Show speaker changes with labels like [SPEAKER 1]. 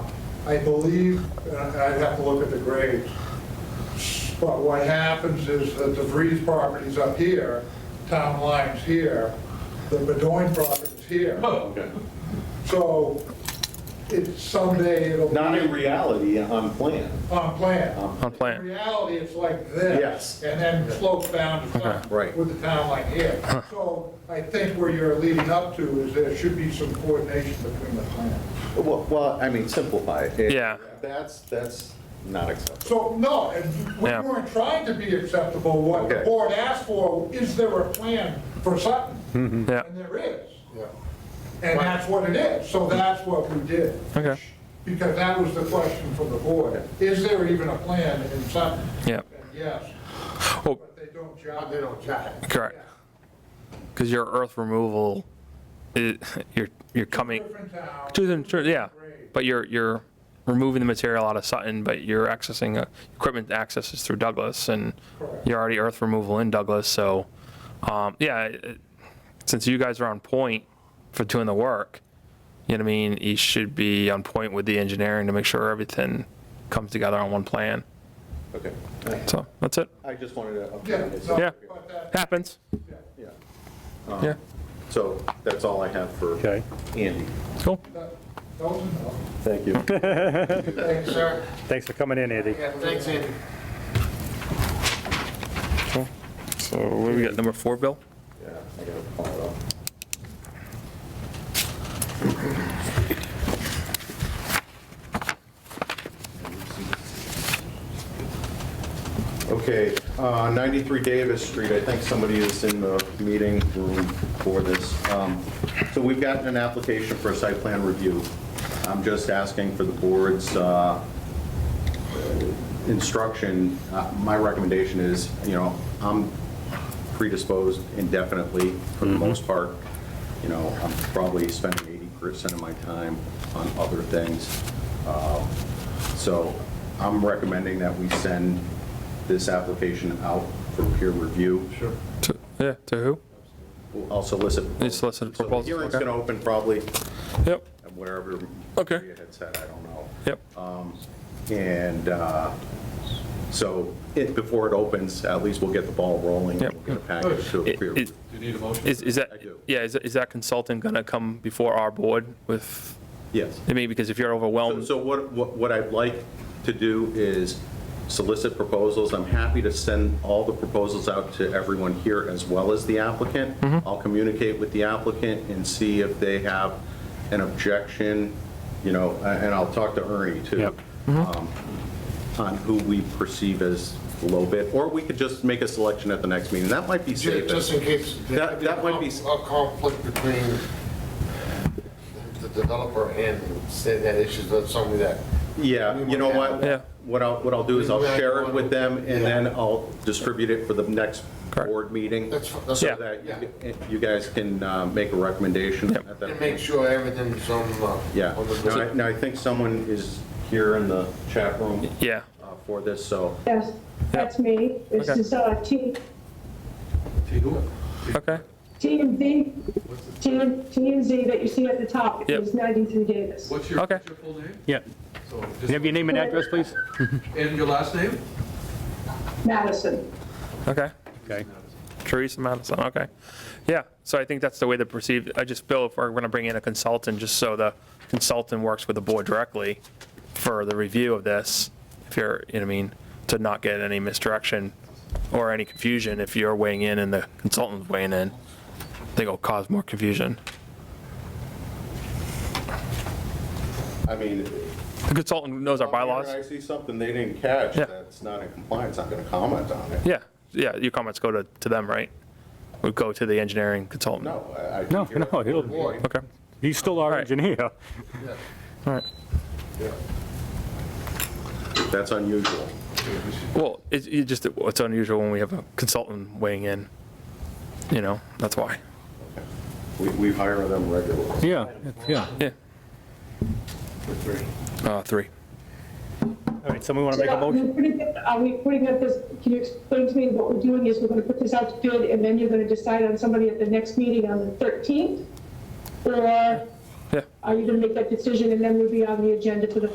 [SPEAKER 1] I believe, and I'd have to look at the grades, but what happens is that the Vries property's up here, town line's here, the Bedoin property's here.
[SPEAKER 2] Oh, Okay.
[SPEAKER 1] So it, someday it'll be
[SPEAKER 2] Not in reality, on plan.
[SPEAKER 1] on plan.
[SPEAKER 3] on
[SPEAKER 1] In
[SPEAKER 3] plan.
[SPEAKER 1] reality, it's like this.
[SPEAKER 2] Yes.
[SPEAKER 1] And then slopes down to town.
[SPEAKER 2] Right.
[SPEAKER 1] With the town line here. So I think where you're leading up to is there should be some coordination between the plans.
[SPEAKER 2] Well, well, I mean, simplify it. it.
[SPEAKER 3] Yeah.
[SPEAKER 2] That's, that's not acceptable.
[SPEAKER 1] So, no, and we
[SPEAKER 3] Yeah.
[SPEAKER 1] weren't trying to be acceptable. What the
[SPEAKER 2] Okay.
[SPEAKER 1] board asked for, is there a plan for Sutton? And
[SPEAKER 3] Yeah,
[SPEAKER 1] there is. And that's what it is. So that's what we did.
[SPEAKER 3] Okay.
[SPEAKER 1] Because that was the question from the board. Is there even a plan in Sutton?
[SPEAKER 3] yeah,
[SPEAKER 1] And yes,
[SPEAKER 3] Oh.
[SPEAKER 1] but they don't jive. They don't jive.
[SPEAKER 3] correct. Because your earth removal, i you're, you're coming,
[SPEAKER 1] Different town.
[SPEAKER 3] two different- sure, yeah, but you're, you're removing the material out of Sutton, but you're accessing, uh, equipment access is through Douglas, and you're already earth removal in Douglas, so, um, yeah, it- since you guys are on point for doing the work, you know what I mean, you should be on point with the engineering to make sure everything comes together on one plan,
[SPEAKER 2] Okay.
[SPEAKER 3] so, that's it,
[SPEAKER 2] I just wanted to
[SPEAKER 1] Yeah,
[SPEAKER 2] update
[SPEAKER 1] no,
[SPEAKER 2] it.
[SPEAKER 3] Yeah.
[SPEAKER 1] but that,
[SPEAKER 3] happens,
[SPEAKER 2] Yeah. Um,
[SPEAKER 3] yeah,
[SPEAKER 2] So that's all I have for
[SPEAKER 4] Okay.
[SPEAKER 2] Andy.
[SPEAKER 3] cool.
[SPEAKER 1] that, that was enough.
[SPEAKER 2] Thank you.
[SPEAKER 1] Thanks, sir.
[SPEAKER 4] Thanks for coming in, Andy.
[SPEAKER 1] Thanks, Andy.
[SPEAKER 3] So what do we got, number four, Bill?
[SPEAKER 2] Yeah, I gotta pull it off. Okay, uh, 93 Davis Street, I think somebody is in the meeting room for this. Um, So we've gotten an application for a site plan review. I'm just asking for the board's uh, instruction. Uh, My recommendation is, you know, I'm predisposed indefinitely for
[SPEAKER 3] Mm-hmm.
[SPEAKER 2] the most part. You know, I'm probably spending 80% of my time on other things. Um, So I'm recommending that we send this application out for peer review. Sure.
[SPEAKER 3] To, yeah, to who?
[SPEAKER 2] I'll solicit.
[SPEAKER 3] You solicit
[SPEAKER 2] So the
[SPEAKER 3] proposals,
[SPEAKER 2] Hearing's
[SPEAKER 3] okay.
[SPEAKER 2] going to open probably
[SPEAKER 3] Yep,
[SPEAKER 2] at wherever.
[SPEAKER 3] Okay.
[SPEAKER 2] Maria had said, I don't know.
[SPEAKER 3] yep,
[SPEAKER 2] And uh, so it, before it opens, at least we'll get the ball rolling. and
[SPEAKER 3] Yep.
[SPEAKER 2] We'll get a package to a
[SPEAKER 3] It-
[SPEAKER 2] peer
[SPEAKER 3] it-
[SPEAKER 2] review.
[SPEAKER 3] Is, is that,
[SPEAKER 2] I do.
[SPEAKER 3] yeah, is, is that consultant gonna come before our board with,
[SPEAKER 2] Yes.
[SPEAKER 3] I mean, because if you're
[SPEAKER 2] So-
[SPEAKER 3] overwhelmed,
[SPEAKER 2] So what, what what I'd like to do is solicit proposals. I'm happy to send all the proposals out to everyone here as well as the applicant. I'll communicate with the applicant and see if they have an objection, you know, a- and I'll talk to Ernie too.
[SPEAKER 4] Yep.
[SPEAKER 2] um, On who we perceive as low bid, or we could just make a selection at the next meeting. That might be
[SPEAKER 5] Ju- Just
[SPEAKER 2] safest.
[SPEAKER 5] in case. there
[SPEAKER 2] That-
[SPEAKER 5] could be
[SPEAKER 2] that
[SPEAKER 5] a
[SPEAKER 2] might be-
[SPEAKER 5] con- A conflict between the developer and say that issues, that's something that.
[SPEAKER 2] Yeah, you know what?
[SPEAKER 3] Yeah.
[SPEAKER 2] What I'll, what I'll do is I'll share it with them and then I'll distribute it for the next
[SPEAKER 3] Correct.
[SPEAKER 2] board meeting.
[SPEAKER 5] That's, fi- that's.
[SPEAKER 3] Yeah.
[SPEAKER 2] So that
[SPEAKER 5] Yeah.
[SPEAKER 2] you- you guys can uh, make a recommendation at that
[SPEAKER 5] And make
[SPEAKER 2] point.
[SPEAKER 5] sure everything's on. uh,
[SPEAKER 2] Yeah.
[SPEAKER 5] on the-
[SPEAKER 2] Now, I- Now, I think someone is here in the chat room
[SPEAKER 3] yeah,
[SPEAKER 2] uh, for this, so
[SPEAKER 6] Yes, that's me. This
[SPEAKER 3] Okay.
[SPEAKER 6] is uh, T-
[SPEAKER 3] okay,
[SPEAKER 6] TMZ, TM TMZ that you see at the top.
[SPEAKER 3] Yep.
[SPEAKER 6] It is 93 Davis.
[SPEAKER 7] What's your,
[SPEAKER 3] Okay.
[SPEAKER 7] what's your full name?
[SPEAKER 4] Yeah.
[SPEAKER 7] So
[SPEAKER 4] Can I have your
[SPEAKER 7] just,
[SPEAKER 4] name and address, please?
[SPEAKER 7] and your last name?
[SPEAKER 6] Madison.
[SPEAKER 3] okay.
[SPEAKER 4] Okay.
[SPEAKER 3] Teresa Madison, okay. Yeah, so I think that's the way to perceive, I just, Bill, if we're gonna bring in a consultant, just so the consultant works with the board directly for the review of this, if you're, you know, what I mean, to not get any misdirection or any confusion if you're weighing in and the consultant's weighing in, I think it'll cause more confusion.
[SPEAKER 2] I mean.
[SPEAKER 3] The consultant knows our
[SPEAKER 2] I
[SPEAKER 3] bylaws.
[SPEAKER 2] see something they didn't catch
[SPEAKER 3] Yeah.
[SPEAKER 2] that's not in compliance, I'm going to comment on it.
[SPEAKER 3] Yeah, yeah, your comments go to, to them, right? Would go to the engineering consultant?
[SPEAKER 2] No, I- I.
[SPEAKER 4] No, no, it'll-
[SPEAKER 2] will
[SPEAKER 3] Okay,
[SPEAKER 4] He's still our
[SPEAKER 3] Alright.
[SPEAKER 4] engineer.
[SPEAKER 3] all right.
[SPEAKER 2] That's unusual.
[SPEAKER 3] Well, it's, it just, it's unusual when we have a consultant weighing in, you know, that's why.
[SPEAKER 2] We, we hire them regularly.
[SPEAKER 4] Yeah, yeah.
[SPEAKER 3] Yeah. Three. Uh, three.
[SPEAKER 4] All right, someone want to make a
[SPEAKER 6] So, are we
[SPEAKER 4] motion?
[SPEAKER 6] putting it- Are we putting up this, can you explain to me what we're doing is we're going to put this out to bid and then you're going to decide on somebody at the next meeting on the 13th? Or
[SPEAKER 3] Yeah.
[SPEAKER 6] are you going to make that decision and then we'll be on the agenda for the